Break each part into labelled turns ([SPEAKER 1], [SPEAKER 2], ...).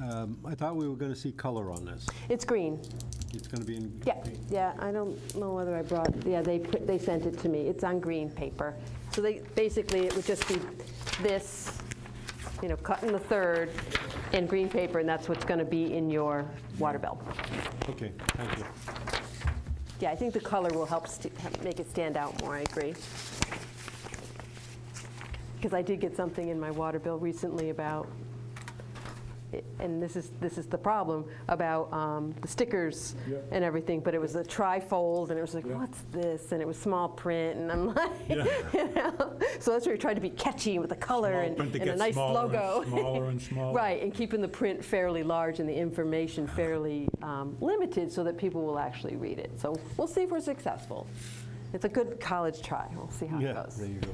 [SPEAKER 1] Um, I thought we were going to see color on this.
[SPEAKER 2] It's green.
[SPEAKER 1] It's going to be in.
[SPEAKER 2] Yeah, yeah, I don't know whether I brought, yeah, they, put- they sent it to me. It's on green paper. So they, basically, it would just be this, you know, cut in the third and green paper, and that's what's going to be in your water bill.
[SPEAKER 1] Okay, thank you.
[SPEAKER 2] Yeah, I think the color will help st- make it stand out more, I agree. Because I did get something in my water bill recently about, and this is, this is the problem, about um, the stickers
[SPEAKER 3] Yep.
[SPEAKER 2] and everything, but it was a tri-fold, and it was like,
[SPEAKER 3] Yeah.
[SPEAKER 2] what's this? And it was small print, and I'm like, you know? So that's where we tried to be catchy with the color
[SPEAKER 3] Small
[SPEAKER 2] and
[SPEAKER 3] print that
[SPEAKER 2] and a
[SPEAKER 3] gets
[SPEAKER 2] nice
[SPEAKER 3] smaller and
[SPEAKER 2] logo.
[SPEAKER 3] smaller and smaller.
[SPEAKER 2] Right, and keeping the print fairly large and the information fairly um, limited so that people will actually read it. So we'll see if we're successful. It's a good college try. We'll see how it
[SPEAKER 1] Yeah,
[SPEAKER 2] goes.
[SPEAKER 1] there you go.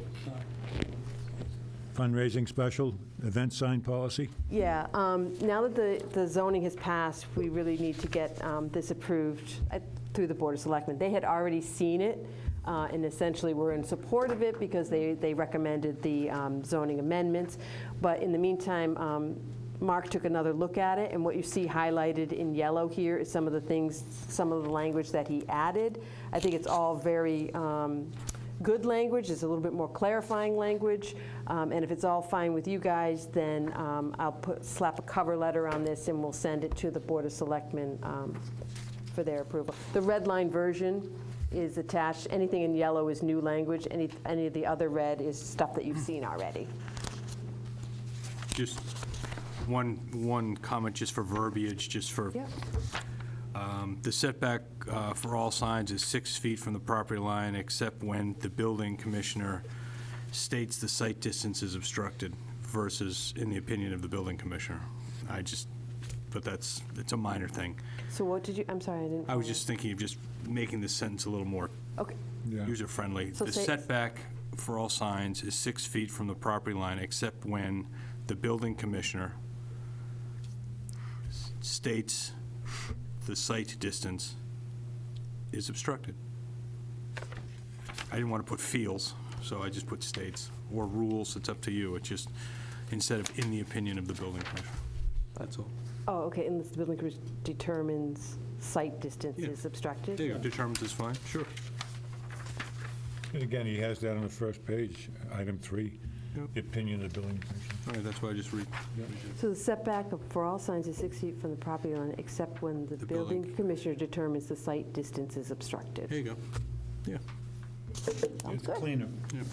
[SPEAKER 3] Fundraising special, event sign policy?
[SPEAKER 2] Yeah, um, now that the, the zoning has passed, we really need to get um, this approved uh, through the Board of Selectmen. They had already seen it, uh, and essentially were in support of it because they, they recommended the um, zoning amendments. But in the meantime, um, Mark took another look at it, and what you see highlighted in yellow here is some of the things, some of the language that he added. I think it's all very, um, good language, it's a little bit more clarifying language, um, and if it's all fine with you guys, then um, I'll put, slap a cover letter on this, and we'll send it to the Board of Selectmen um, for their approval. The red line version is attached, anything in yellow is new language, any, any of the other red is stuff that you've seen already.
[SPEAKER 4] Just one, one comment, just for verbiage, just for, um, the setback uh, for all signs is six feet from the property line, except when the building commissioner states the site distance is obstructed versus in the opinion of the building commissioner. I just, but that's, it's a minor thing.
[SPEAKER 2] So what did you, I'm sorry, I didn't.
[SPEAKER 4] I was just thinking of just making this sentence a little more
[SPEAKER 2] Okay,
[SPEAKER 3] Yeah.
[SPEAKER 4] user-friendly.
[SPEAKER 2] So
[SPEAKER 4] The
[SPEAKER 2] say-
[SPEAKER 4] setback for all signs is six feet from the property line, except when the building commissioner s- states the site distance is obstructed. I didn't want to put feels, so I just put states, or rules, it's up to you. It's just, instead of in the opinion of the building commissioner. That's all.
[SPEAKER 2] oh, okay, and the building commissioner determines site distance
[SPEAKER 4] Yeah.
[SPEAKER 2] is obstructed?
[SPEAKER 4] There you go. Determines is fine? Sure.
[SPEAKER 3] And again, he has that on the first page, item three,
[SPEAKER 4] Yep.
[SPEAKER 3] the opinion of the building commission.
[SPEAKER 4] All right, that's why I just read.
[SPEAKER 2] So the setback of- for all signs is six feet from the property line, except when the
[SPEAKER 4] The building.
[SPEAKER 2] building commissioner determines the site distance is
[SPEAKER 4] There
[SPEAKER 2] obstructed.
[SPEAKER 4] you go. Yeah.
[SPEAKER 2] Sounds
[SPEAKER 3] It's
[SPEAKER 2] good.
[SPEAKER 3] cleaner.
[SPEAKER 2] Yep.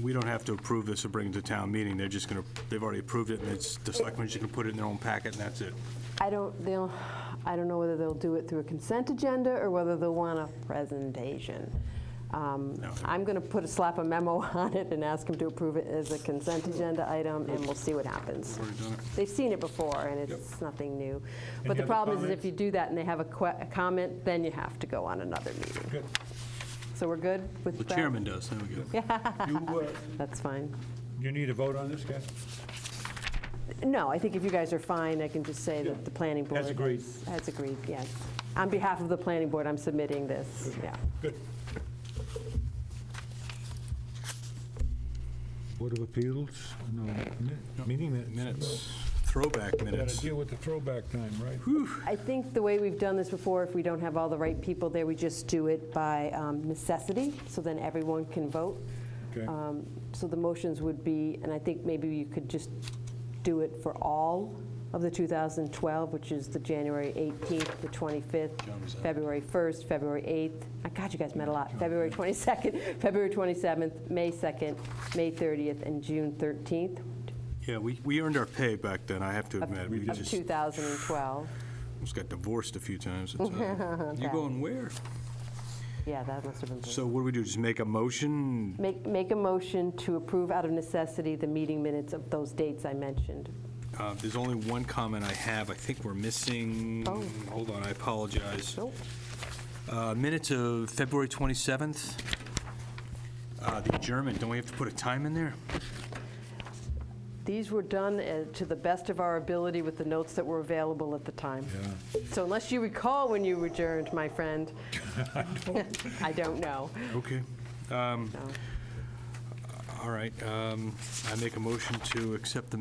[SPEAKER 4] We don't have to approve this or bring it to town meeting, they're just going to, they've already approved it, and it's, the selectmen's just going to put it in their own packet, and that's it.
[SPEAKER 2] I don't, they'll, I don't know whether they'll do it through a consent agenda or whether they'll want a presentation. Um,
[SPEAKER 4] No.
[SPEAKER 2] I'm going to put a slap a memo on it and ask them to approve it as a consent agenda item, and we'll see what happens.
[SPEAKER 4] Already done it.
[SPEAKER 2] They've seen it before, and it's nothing new. But the
[SPEAKER 3] other
[SPEAKER 2] problem is, is
[SPEAKER 3] comments?
[SPEAKER 2] if you do that and they have a que- a comment, then you have to go on another meeting.
[SPEAKER 3] Good.
[SPEAKER 2] So we're good with
[SPEAKER 4] The
[SPEAKER 2] that?
[SPEAKER 4] chairman does, there we go.
[SPEAKER 3] You, uh,
[SPEAKER 2] That's fine.
[SPEAKER 3] you need a vote on this, Kathy?
[SPEAKER 2] No, I think if you guys are fine, I can just say
[SPEAKER 3] Yeah.
[SPEAKER 2] that the planning board.
[SPEAKER 3] Has agreed.
[SPEAKER 2] Has agreed, yes. On behalf of the planning board, I'm submitting this, yeah.
[SPEAKER 3] Good. Board of Appeals, no, mi- meeting minutes.
[SPEAKER 4] Minutes, throwback
[SPEAKER 3] Got to
[SPEAKER 4] minutes.
[SPEAKER 3] deal with the throwback time, right?
[SPEAKER 2] I think the way we've done this before, if we don't have all the right people there, we just do it by um, necessity, so then everyone can vote.
[SPEAKER 3] Okay.
[SPEAKER 2] Um, So the motions would be, and I think maybe you could just do it for all of the 2012, which is the January 18th, the 25th, February 1st, February 8th. My God, you guys met a lot. February 22nd, February 27th, May 2nd, May 30th, and June 13th
[SPEAKER 4] Yeah, we, we earned our pay back then, I have to admit. We
[SPEAKER 2] of
[SPEAKER 4] just,
[SPEAKER 2] 2012.
[SPEAKER 4] just got divorced a few times. it's, uh, You
[SPEAKER 2] Okay.
[SPEAKER 4] going where?
[SPEAKER 2] Yeah, that must have been.
[SPEAKER 4] So what do we do, just make a motion?
[SPEAKER 2] Make, make a motion to approve out of necessity the meeting minutes of those dates I mentioned.
[SPEAKER 4] Uh, There's only one comment I have, I think we're missing,
[SPEAKER 2] Oh.
[SPEAKER 4] hold on, I apologize.
[SPEAKER 2] Nope.
[SPEAKER 4] Uh, Minutes of February 27th. Uh, The adjournment, don't we have to put a time in there?
[SPEAKER 2] These were done uh, to the best of our ability with the notes that were available at the time. So unless you recall when you adjourned, my friend, I don't know.
[SPEAKER 4] Okay.
[SPEAKER 2] so.
[SPEAKER 4] um, All right, um, I make a motion to accept the